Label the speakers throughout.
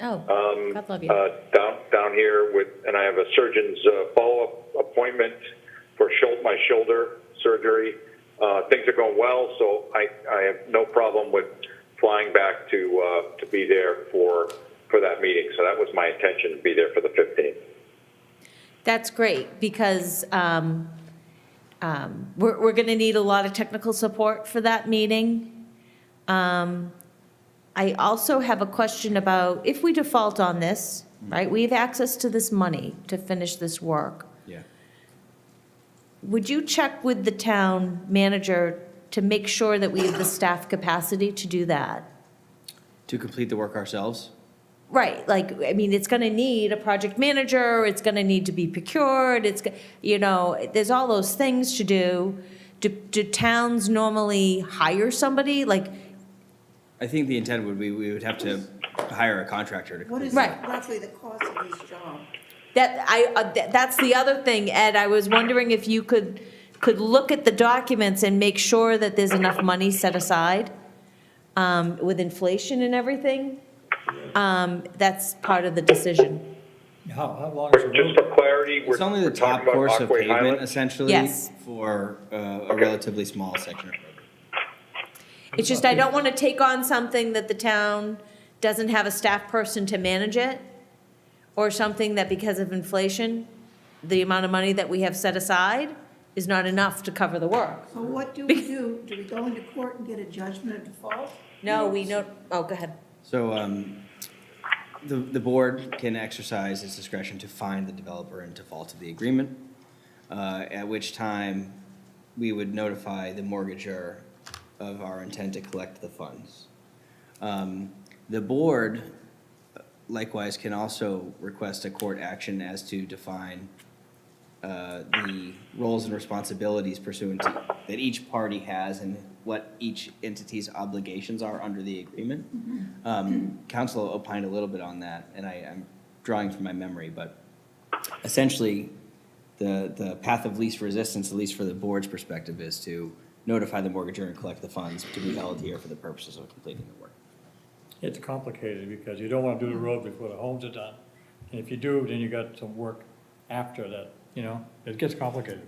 Speaker 1: Oh, God love you.
Speaker 2: uh, down, down here with, and I have a surgeon's uh, follow-up appointment for shou- my shoulder surgery. Uh, Things are going well, so I, I have no problem with flying back to, uh, to be there for, for that meeting. So that was my intention, to be there for the 15th.
Speaker 1: That's great, because um, um, we're, we're going to need a lot of technical support for that meeting. Um, I also have a question about, if we default on this, right, we have access to this money to finish this work.
Speaker 3: Yeah.
Speaker 1: Would you check with the town manager to make sure that we have the staff capacity to do that?
Speaker 3: To complete the work ourselves?
Speaker 1: Right, like, I mean, it's gonna need a project manager, it's gonna need to be procured, it's, go- you know, there's all those things to do. Do, do towns normally hire somebody, like,
Speaker 3: I think the intent would be, we would have to hire a contractor to
Speaker 4: What
Speaker 3: complete.
Speaker 4: is
Speaker 1: Right.
Speaker 4: roughly the cost of this job?
Speaker 1: that, I, uh, th- that's the other thing, Ed, I was wondering if you could, could look at the documents and make sure that there's enough money set aside, um, with inflation and everything, um, that's part of the decision,
Speaker 5: How, how long is the
Speaker 2: We're- Just
Speaker 5: road?
Speaker 2: for clarity, we're
Speaker 3: It's only the
Speaker 2: we're
Speaker 3: top
Speaker 2: talking about
Speaker 3: course of
Speaker 2: Aquay
Speaker 3: pavement
Speaker 2: Highland.
Speaker 3: essentially.
Speaker 1: Yes.
Speaker 3: For uh, a
Speaker 2: Okay.
Speaker 3: relatively small section of road.
Speaker 1: It's just I don't want to take on something that the town doesn't have a staff person to manage it, or something that because of inflation, the amount of money that we have set aside is not enough to cover the work.
Speaker 4: So what do we do? Do we go into court and get a judgment of default?
Speaker 1: No, we don't, oh, go ahead.
Speaker 3: So um, the, the board can exercise its discretion to find the developer in default of the agreement, uh, at which time we would notify the mortgager of our intent to collect the funds. Um, The board uh, likewise can also request a court action as to define uh, the roles and responsibilities pursuant to, that each party has and what each entity's obligations are under the agreement. Um, Council opined a little bit on that, and I, I'm drawing from my memory, but essentially, the, the path of least resistance, at least for the board's perspective, is to notify the mortgagor and collect the funds to be held here for the purposes of completing the work.
Speaker 5: It's complicated because you don't want to do the road before the homes are done. And if you do, then you got some work after that, you know, it gets complicated.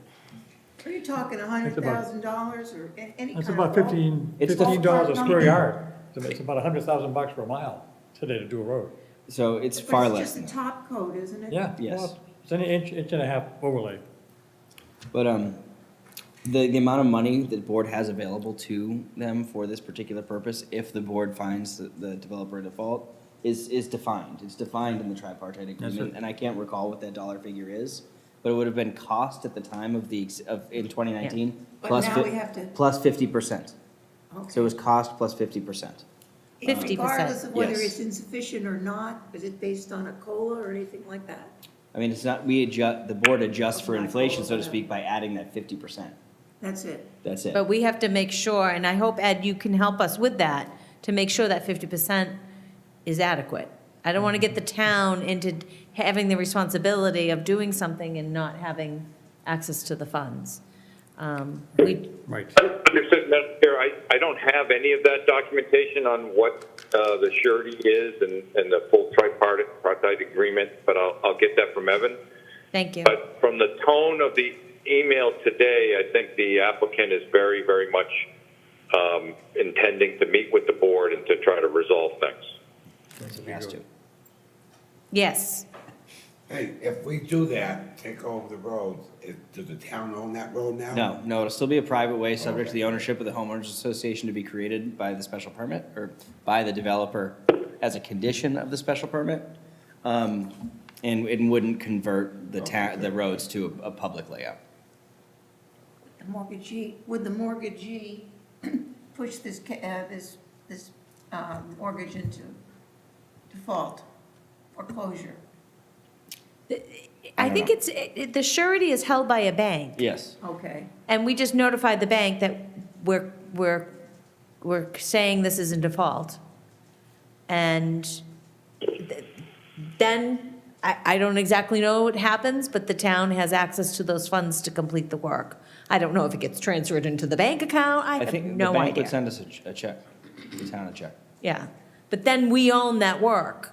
Speaker 4: Are you talking a hundred
Speaker 5: about-
Speaker 4: thousand dollars or a- any kind of?
Speaker 5: That's about
Speaker 4: bulk?
Speaker 5: fifteen,
Speaker 3: It's the-
Speaker 5: fifteen dollars a square yard. It's it's about a hundred thousand bucks per mile today to do a road.
Speaker 3: So it's
Speaker 4: But
Speaker 3: far less than
Speaker 4: It's just
Speaker 3: that.
Speaker 4: the top coat, isn't it?
Speaker 5: Yeah.
Speaker 3: Yes.
Speaker 5: well, It's an inch, inch and a half overlay.
Speaker 3: But um, the, the amount of money that the board has available to them for this particular purpose, if the board finds the, the developer in default, is, is defined. It's defined in the tripartite agreement,
Speaker 5: right.
Speaker 3: and I can't recall what that dollar figure is, but it would have been cost at the time of the, ex- of, in twenty nineteen.
Speaker 4: But now we have to-
Speaker 3: Plus fifty percent.
Speaker 4: Okay.
Speaker 3: So it was cost plus fifty percent.
Speaker 4: It's
Speaker 1: 50%.
Speaker 4: Regardless of whether
Speaker 3: Yes.
Speaker 4: it's insufficient or not, is it based on a COLA or anything like that?
Speaker 3: I mean, it's not, we adjust, the board adjusts for
Speaker 4: Like all
Speaker 3: inflation,
Speaker 4: of
Speaker 3: so to
Speaker 4: that.
Speaker 3: speak, by adding that fifty percent.
Speaker 4: That's it.
Speaker 3: That's it.
Speaker 1: But we have to make sure, and I hope, Ed, you can help us with that, to make sure that fifty percent is adequate. I don't want to get the town into having the responsibility of doing something and not having access to the funds. Um, We,
Speaker 5: Right.
Speaker 2: Understood, Madam Chair, I, I don't have any of that documentation on what uh, the surety is and, and the full tripartite tripartite agreement, but I'll, I'll get that from Evan.
Speaker 1: thank you.
Speaker 2: But from the tone of the email today, I think the applicant is very, very much um, intending to meet with the board and to try to resolve things.
Speaker 3: Has to.
Speaker 1: Yes.
Speaker 6: Hey, if we do that, take over the roads, is, does the town own that road now?
Speaker 3: No, no, it'll still be a private way, subject to the ownership of the homeowners association to be created by the special permit, or by the developer as a condition of the special permit. Um, and, and wouldn't convert the ta, the roads to a, a public layout.
Speaker 4: The mortgagee, would the mortgagee push this, ca- uh, this, this, um, mortgage into default, foreclosure?
Speaker 1: I think it's, it- it- the surety is held by a bank,
Speaker 3: Yes.
Speaker 4: Okay.
Speaker 1: and we just notified the bank that we're, we're, we're saying this is in default. And th- then, I, I don't exactly know what happens, but the town has access to those funds to complete the work. I don't know if it gets transferred into the bank account, I
Speaker 3: I
Speaker 1: have
Speaker 3: think the
Speaker 1: no
Speaker 3: bank would
Speaker 1: idea.
Speaker 3: send us a, ch- a check, the town a check.
Speaker 1: Yeah, but then we own that work.